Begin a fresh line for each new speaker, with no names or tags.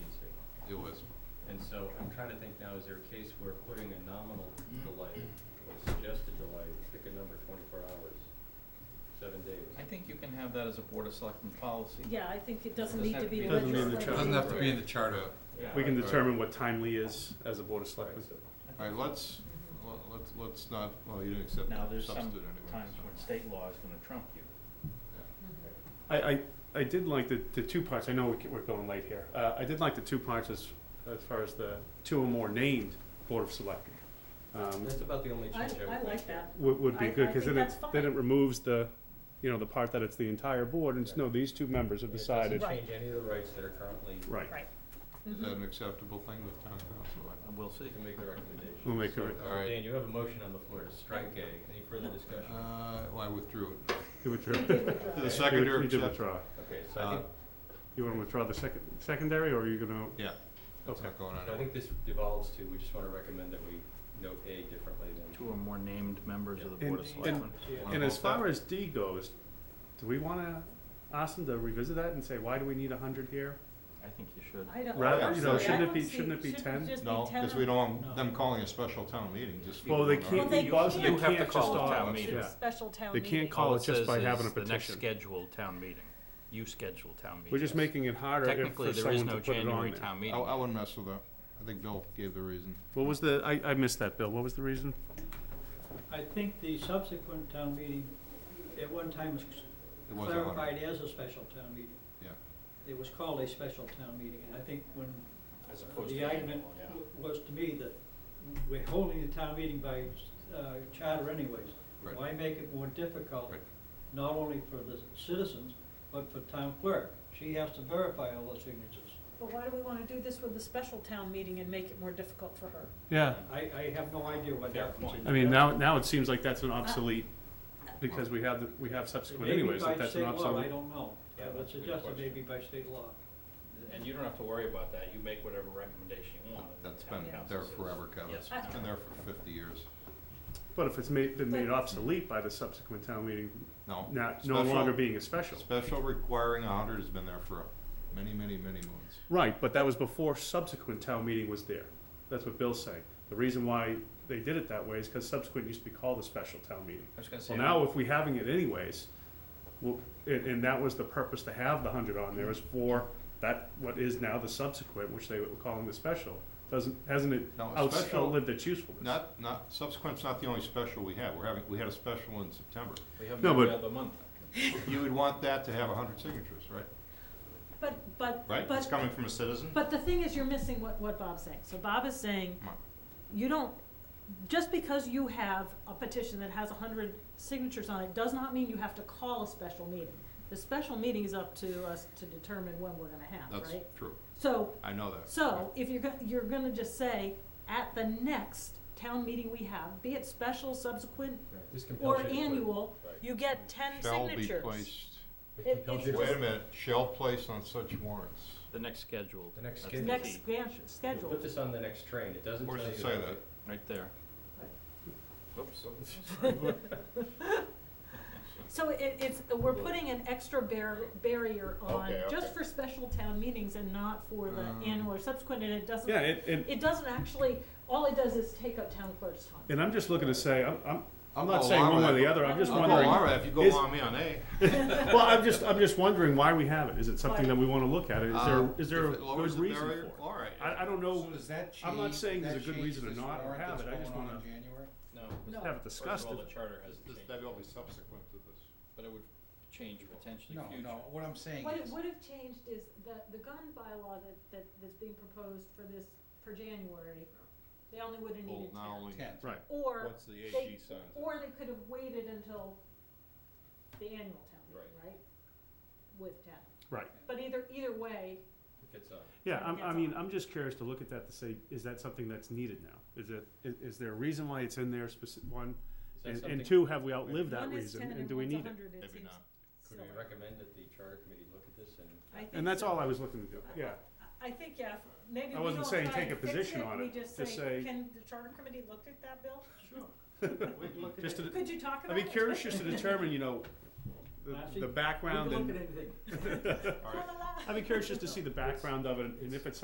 So I'm trying to think now, is there a case where putting a nominal delay or suggested delay, pick a number twenty-four hours, seven days?
I think you can have that as a Board of Selectmen policy.
Yeah, I think it doesn't
Doesn't
need
have to
to
be-
be
Doesn't need to
legislative.
be-
Doesn't have to be in the charter.
Yeah.
We can
Right.
determine what timely is as a board of selectmen.
All right, let's, let- let's, let's not, well, you didn't accept
Now,
the
there's some
substitute anyway.
times
so-
when state law is gonna trump you.
I, I, I did like the, the two parts, I know we c- we're going late here, uh, I did like the two parts as, as far as the two or more named board of selectmen. Um,
That's about the only
I,
change I would
I like
make here.
that.
would, would be
I-
good,
I
cause
think
then it,
that's
then it
fine.
removes the, you know, the part that it's the entire board, and it's,
Yeah.
no, these two members have
It
decided.
doesn't change any of the rights that are currently,
Right,
Right.
Is
Mm-hmm.
that an acceptable thing with town council?
And we'll see.
you can make the recommendation.
We'll make a re-
So,
All right.
Dan, you have a motion on the floor to strike A. Any further discussion?
Uh, well, I withdrew it.
you withdraw.
The
Okay.
seconder
You did
accept?
withdraw.
Okay, so I think,
You wanna withdraw the second, secondary, or are you gonna,
Yeah, it's
okay,
not going
so I
anywhere.
think this devolves to, we just wanna recommend that we note A differently than.
Two or more named members of the Board of
And-
Selectmen.
Wanna
and as
vote that?
far as D goes, do we wanna ask them to revisit that and say, why do we need a hundred here?
I think you should.
I don't.
Rather,
you
honestly,
know,
I
shouldn't it
don't
be-
see-
shouldn't it be
shouldn't
10?
just be
No,
10
because we don't want them calling a special town meeting just.
Well, they
Well,
can't,
they
you also, they
can't.
can't
You have to
just
call a town
all,
It's
meeting.
yeah.
a special town
They
meeting.
can't call
All
it just
says
by
is
having a
The next
petition.
scheduled town meeting. You schedule town meeting.
We're just making it harder if
Technically,
for
there is
someone
no
to put it
January
on there.
town
I,
meeting.
I wouldn't mess with that. I think Bill gave the reason.
What was the, I, I missed that, Bill, what was the reason?
I think the subsequent town meeting at one time was
It was a hundred.
clarified as a special town meeting.
Yeah.
It was called a special town meeting, and I think when
As
the argument w- was to me that we're holding the town meeting by uh, charter anyways.
Right.
Why make it more difficult,
Right.
not only for the citizens, but for town clerk? She has to verify all the signatures.
But why do we wanna do this with a special town meeting and make it more difficult for her?
Yeah,
I, I have no idea what
Fair
happens.
point.
I mean, now, now it seems like that's an obsolete, because we have, the we have subsequent anyways, that that's an
Maybe by state law, I
obsolete.
don't know. I would
that's a good
suggest it may
question.
be by state law.
And you don't have to worry about that. You make whatever recommendation you want. and the
That's
town
been
council
there
says-
forever, Kevin.
Yes.
It's been there for fifty years.
But if it's made, been made obsolete by the subsequent town meeting,
No.
not, no
special-
longer being a special.
Special requiring a hundred has been there for many, many, many moons.
Right, but that was before subsequent town meeting was there. That's what Bill's saying. The reason why they did it that way is because subsequent used to be called a special town meeting.
I was gonna say.
Well, now if we having it anyways, well, and, and that was the purpose to have the hundred on there is for that, what is now the subsequent, which they were calling the special, doesn't, hasn't it
No, a
outs-
special-
outlived its usefulness?
Not, not, subsequent's not the only special we have. We're having, we had a special in September.
We have
No,
every
but-
other month.
You would want that to have a hundred signatures, right?
But, but,
Right? It's
but,
coming from a citizen?
but the thing is, you're missing what, what Bob's saying. So Bob is saying,
Come on.
you don't, just because you have a petition that has a hundred signatures on it, does not mean you have to call a special meeting. The special meeting is up to us to determine when we're gonna have,
That's
right?
true.
So,
I know that.
So if you're, go- you're gonna just say, at the next town meeting we have, be it special, subsequent,
This compels
or
you to put-
annual,
Right.
you get ten
Shall be
signatures.
placed,
It
It-
compels
it's
you to-
wait a minute, shall place on such warrants.
The next scheduled.
The next
That's the
Next
key,
scan-
We'll
schedule.
Put this on the next train, it doesn't tell
Where
you.
does it say that?
Right there. Oops.
So it, it's, we're putting an extra bar- barrier on,
Okay,
just
okay.
for special town meetings and not for the
Um.
annual or subsequent, and it doesn't,
Yeah, and, and,
it doesn't actually, all it does is take up town clerk's time.
and I'm just looking to say, I'm, I'm,
I'll
I'm not
go
saying
along
one way or
with
the
that.
other, I'm just
I'll go
wondering.
along with that Oh, if you go
is-
along me on A.
Well, I'm just, I'm just wondering why we have it. Is it something that we wanna look at? Is there,
Um,
is there a
if it lowers
good
the
reason for
barrier,
it?
All right.
I, I don't know,
So does that
I'm not
change-
saying there's
that
a good
changes
reason to
this
not
warrant
have
that's
it. I just
going on
wanna-
in January?
No,
No.
have it
first of
discussed.
all, the charter has
This-
changed,
That'd all be subsequent to this.
but it would change potentially
No,
future.
no, what I'm saying
What it
is,
would have changed is the, the gun bylaw that, that, that's being proposed for this, for January, they only would have
Well,
needed
not
ten.
only,
ten,
Right.
Or,
once the
they-
AG signs it.
or they could have waited until the annual town meeting, right? With ten.
Right.
But either, either way,
It gets on.
Yeah, I'm, I
That's
mean, I'm just curious to look at that to say, is that something that's needed now? Is it, is, is there a reason why it's in there specific, one?
Is that
And, and
something-
two, have we outlived that
one is
reason
ten
and
and
do we
one's a
need it?
hundred, it
Maybe
seems
not.
Could
silly.
we recommend that the charter committee look at this and?
I think
And that's
so.
all I was looking to do, yeah.
I think, yeah, if- maybe
I
we
wasn't
don't
saying
try
take
and
a
fix
position
it,
on
we
it,
just
just
say,
say-
can the charter committee look at that, Bill?
Sure.
Just to,
Could you talk
I'd
about
be
it?
curious just to determine, you know, the,
Actually,
the
We can
background
look at
and,
anything.
All right.
I'd be curious just to see the background of it and if it's